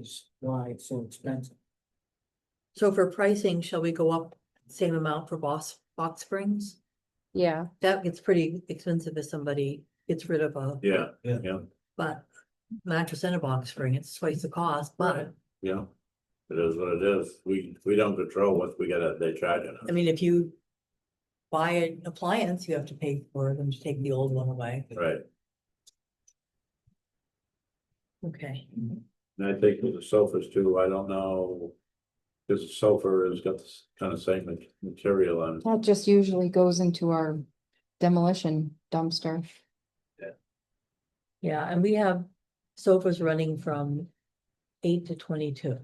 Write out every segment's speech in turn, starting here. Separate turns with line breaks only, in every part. is why it's so expensive.
So for pricing, shall we go up same amount for Boss, Box Springs?
Yeah,
That gets pretty expensive if somebody gets rid of a,
Yeah,
Yeah.
yeah,
but mattress and a box spring, it's twice the cost, but
yeah. It is what it is. We, we don't control what we gotta, they charge us.
I mean, if you buy an appliance, you have to pay for them to take the old one away.
Right,
Okay,
and I think with the sofas too, I don't know. Cause the sofa has got this kind of same ma- material on it.
that just usually goes into our demolition dumpster.
yeah, and we have sofas running from eight to twenty-two.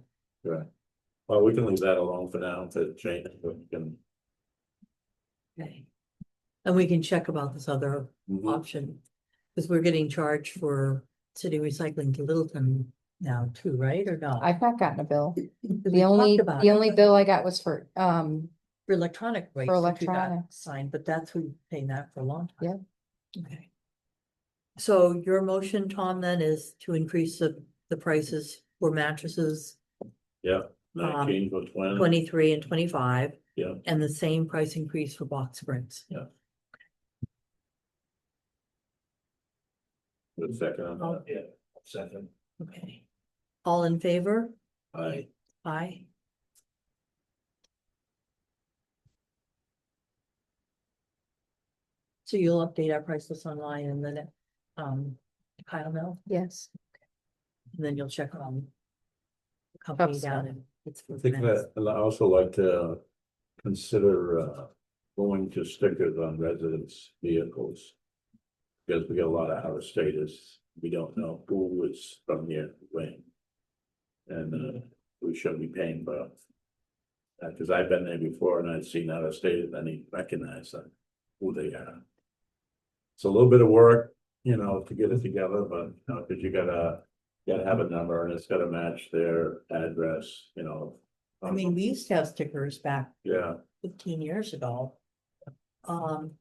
Right. Well, we can leave that alone for now to change, but we can.
Okay. And we can check about this other option, because we're getting charged for city recycling to Littleton now too, right, or not?
I've not gotten a bill.
'Cause we
The only,
talked about
the
it,
only bill I got was for, um,
For electronic waste.
for
that you got
electronics.
Signed, but that's who paying that for a long time. Yeah. Okay. So your motion, Tom, then is to increase the, the prices for mattresses um,
Yeah, nineteen for um, twenty.
twenty-three and twenty-five.
Yeah.
And the same price increase for box springs.
Good second on that.
Yeah, second.
Okay. All in favor?
Aye.
Aye. So you'll update our price list online and then, um, Kyle Mill,
Yes,
and then you'll check on. the Company
Upside.
down and it's.
I think that, and I also like to consider uh going to stickers on residents' vehicles. Because we get a lot of out of staters, we don't know who is from here when. And uh we shouldn't be paying for. Uh, cause I've been there before and I've seen out of staters, and I recognize them, who they are. It's a little bit of work, you know, to get it together, but, you know, cause you gotta, gotta have a number and it's gotta match their address, you know.
I mean, we used to have stickers back
Yeah,
fifteen years ago. Um,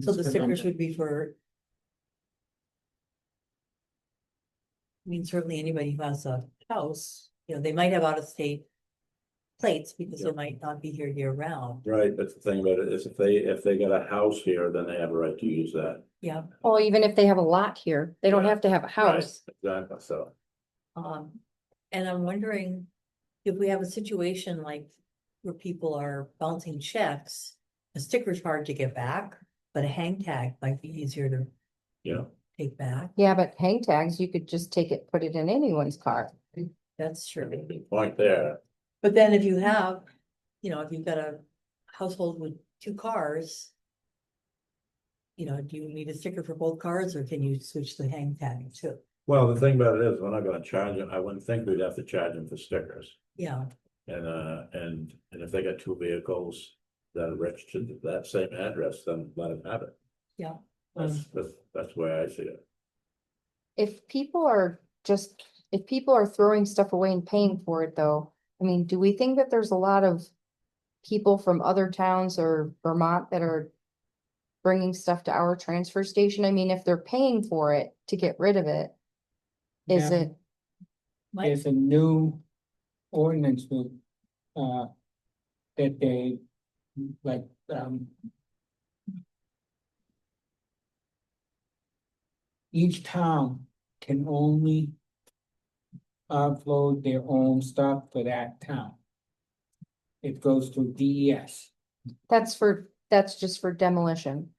so the stickers would be for. I mean, certainly anybody who has a house, you know, they might have out of state. Plates because they
Yeah.
might not be here year round,
right, that's the thing about it, is if they, if they got a house here, then they have a right to use that.
yeah,
well, even if they have a lot here, they don't
Yeah.
have to have a house.
Exactly, so,
um, and I'm wondering. If we have a situation like where people are bouncing checks, a sticker's hard to get back, but a hang tag might be easier to
yeah,
take back.
Yeah, but hang tags, you could just take it, put it in anyone's car.
That's true.
good point there,
But then if you have, you know, if you've got a household with two cars. You know, do you need a sticker for both cars or can you switch the hang tag too?
well, the thing about it is, we're not gonna charge them, I wouldn't think we'd have to charge them for stickers.
Yeah,
And uh, and, and if they got two vehicles that are registered to that same address, then let them have it,
yeah.
that's, that's, that's the way I see it.
If people are just, if people are throwing stuff away and paying for it though, I mean, do we think that there's a lot of people from other towns or Vermont that are bringing stuff to our transfer station? I mean, if they're paying for it to get rid of it, is
Yeah.
it,
Mike?
There's a new ordinance with, uh, that they, like, um. Each town can only upload their own stuff for that town. It goes through E DES.
that's for, that's just for demolition?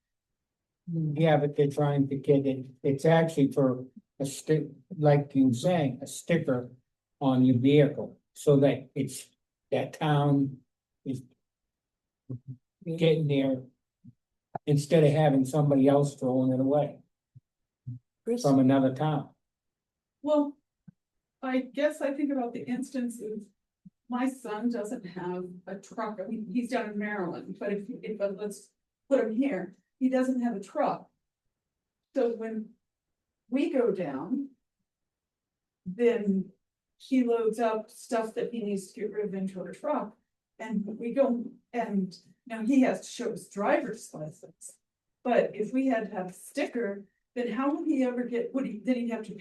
Yeah, but they're trying to get it, it's actually for a stick, like you were saying, a sticker on your vehicle, so that it's, that town is getting there, instead of having somebody else throwing it away
Chris?
from another town.
Well, I guess I think about the instances, my son doesn't have a truck, I mean, he's down in Maryland, but if, if, but let's put him here, he doesn't have a truck. So when we go down, then he loads up stuff that he needs to get rid of into a truck. And we go, and now he has to show his driver's license. But if we had to have a sticker, then how would he ever get, would he, then he'd have to